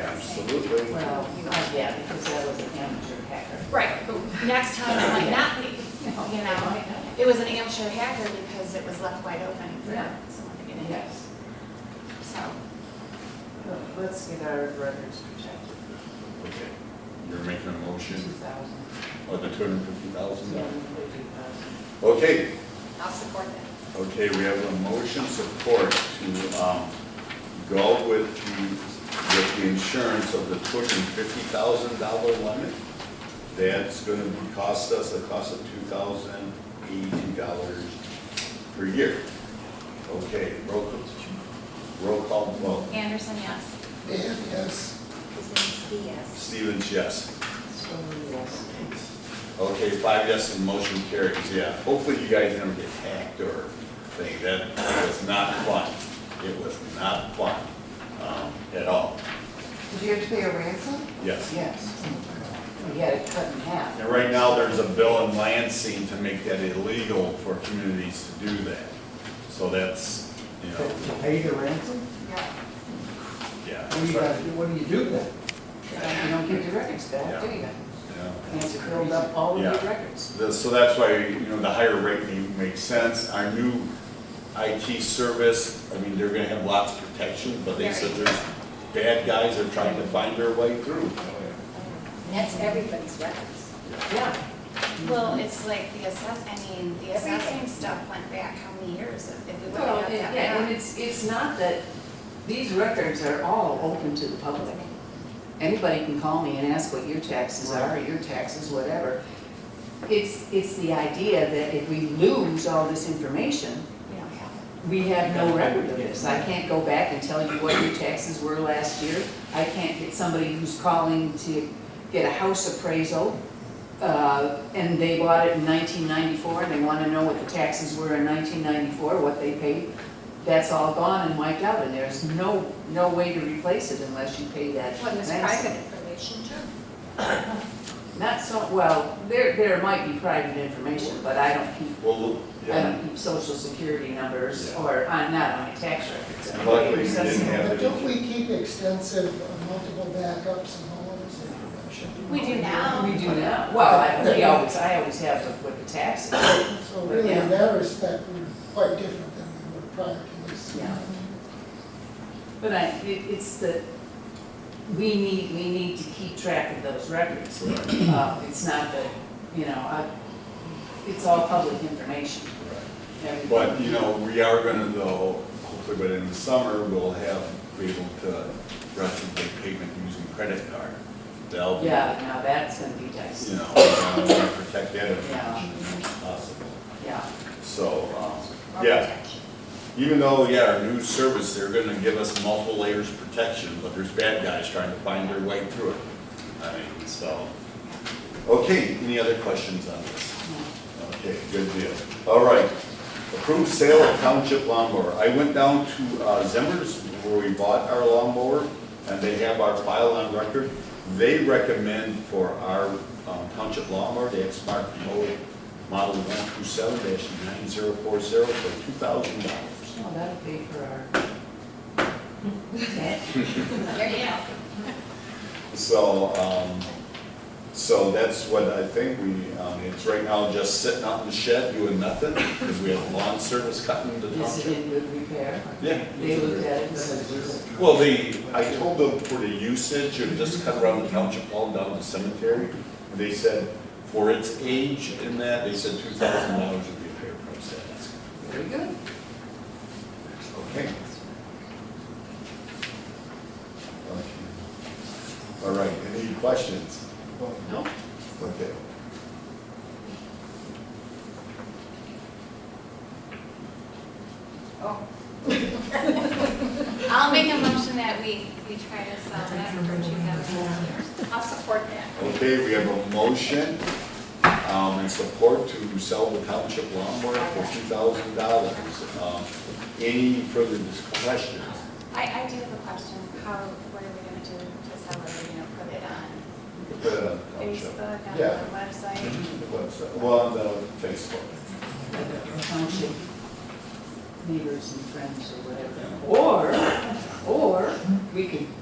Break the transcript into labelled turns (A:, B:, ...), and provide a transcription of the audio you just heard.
A: Absolutely.
B: Well, you know, yeah, because I was an amateur hacker.
C: Right, but next time it might not be, you know? It was an amateur hacker because it was left wide open for
B: Yeah.
C: someone to get in,
B: Yes.
C: so.
B: Look, Let's get our records protected.
D: Okay, you're making a
B: Two
D: motion
B: thousand,
D: of the two hundred and fifty
B: two
D: thousand dollars.
B: hundred fifty thousand.
D: Okay,
C: I'll support that.
D: okay, we have a motion support to, um, go with the, with the insurance of the two hundred and fifty thousand dollar limit. That's gonna be- cost us a cost of two thousand eighty dollars per year. Okay, roll, roll call vote.
C: Anderson, yes.
D: Dan, yes.
C: Kuzinski, yes.
D: Stevens, yes.
B: So, yes.
D: Okay, five yes and motion carries, yeah. Hopefully you guys never get hacked or thing, that was not fun. It was not fun, um, at all,
E: Did you have to pay a ransom?
D: yes.
B: Yes. We had it cut in half.
D: And right now, there's a bill in Lansing to make that illegal for communities to do that. So that's, you know,
E: pay the ransom?
C: Yeah.
D: yeah.
E: What do you gotta do, what do you do then?
B: You don't get your records back, do you?
D: Yeah.
B: And it's curled up all of your
D: Yeah.
B: records.
D: The- So that's why, you know, the higher rate may- makes sense. Our new IT service, I mean, they're gonna have lots of protection, but they said there's bad guys are trying to find their way through.
F: And that's everybody's records.
B: Yeah.
C: Well, it's like the assess, I mean, the assessing
F: Everything.
C: stuff went back how many years if if we would
B: Well,
C: have
B: and-
C: had that?
B: Oh, yeah, and it's, it's not that, these records are all open to the public. Anybody can call me and ask what your taxes are, or your taxes, whatever. It's, it's the idea that if we lose all this information,
C: We don't have it.
B: we have no record of this. I can't go back and tell you what your taxes were last year. I can't get somebody who's calling to get a house appraisal, uh, and they bought it in 1994, and they want to know what the taxes were in 1994, what they paid. That's all gone and wiped out, and there's no, no way to replace it unless you pay that.
F: Well, it's
B: ransom.
F: private information too.
B: Not so, well, there, there might be private information, but I don't keep,
D: Well,
B: I
D: yeah,
B: don't keep social security numbers,
D: Yeah.
B: or, I'm not on my tax records.
D: And luckily you didn't have
G: But Don't we keep extensive uh, multiple backups and all of this information?
C: We do now.
B: We do now, well, I, we always, I always have with- with the taxes.
G: So really,
B: Yeah.
G: in that respect, we're quite different than we were prior to this.
B: Yeah. But I, it, it's the, we need, we need to keep track of those records. Uh, it's not the, you know, I, it's all public information. Everything.
D: but, you know, we are gonna though, hopefully by the end of the summer, we'll have, be able to replicate payment using credit card. That'll be,
B: Yeah, now that's gonna be
D: you
B: dicey,
D: know, we wanna protect that
B: Yeah.
D: information if possible.
B: yeah.
D: So, um,
F: Or
D: Yeah.
F: protection.
D: Even though, yeah, our new service, they're gonna give us multiple layers of protection, but there's bad guys trying to find their way through it. I mean, so. Okay, any other questions on this? Okay, good deal. All right, approved sale of township lawnmower. I went down to uh, Zimmer's where we bought our lawnmower, and they have our file on record. They recommend for our um, township lawnmower, the X-Mark Mo- model one two seven nine zero four zero for two thousand dollars.
B: Well, that'll pay for our.
F: There you go.
D: So, um, so that's what I think we, um, it's right now just sitting out in the shed doing nothing, because we have lawn service cutting the
B: Is it
D: township.
B: in good repair?
D: Yeah.
B: They looked at it and said,
D: Well, they, I told them for the usage, it just cut around the township all down the cemetery. And They said, for its age in that, they said two thousand dollars would be a fair price to ask.
B: very good.
D: Okay. All right, any questions?
B: No.
D: Okay.
C: I'll make a motion that we, we try to sell that for two thousand dollars. I'll support that.
D: Okay, we have a motion, um, and support to sell the township lawnmower for two thousand dollars. Um, Any further dis- questions?
C: I, I do have a question. How, what are we gonna do to sell it? Are we gonna put it on
D: Put
C: Facebook, on
D: it on the township. Oh, Yeah.
C: the website?
D: Website. Well, on the Facebook.
B: township neighbors and friends or whatever. Or, or we could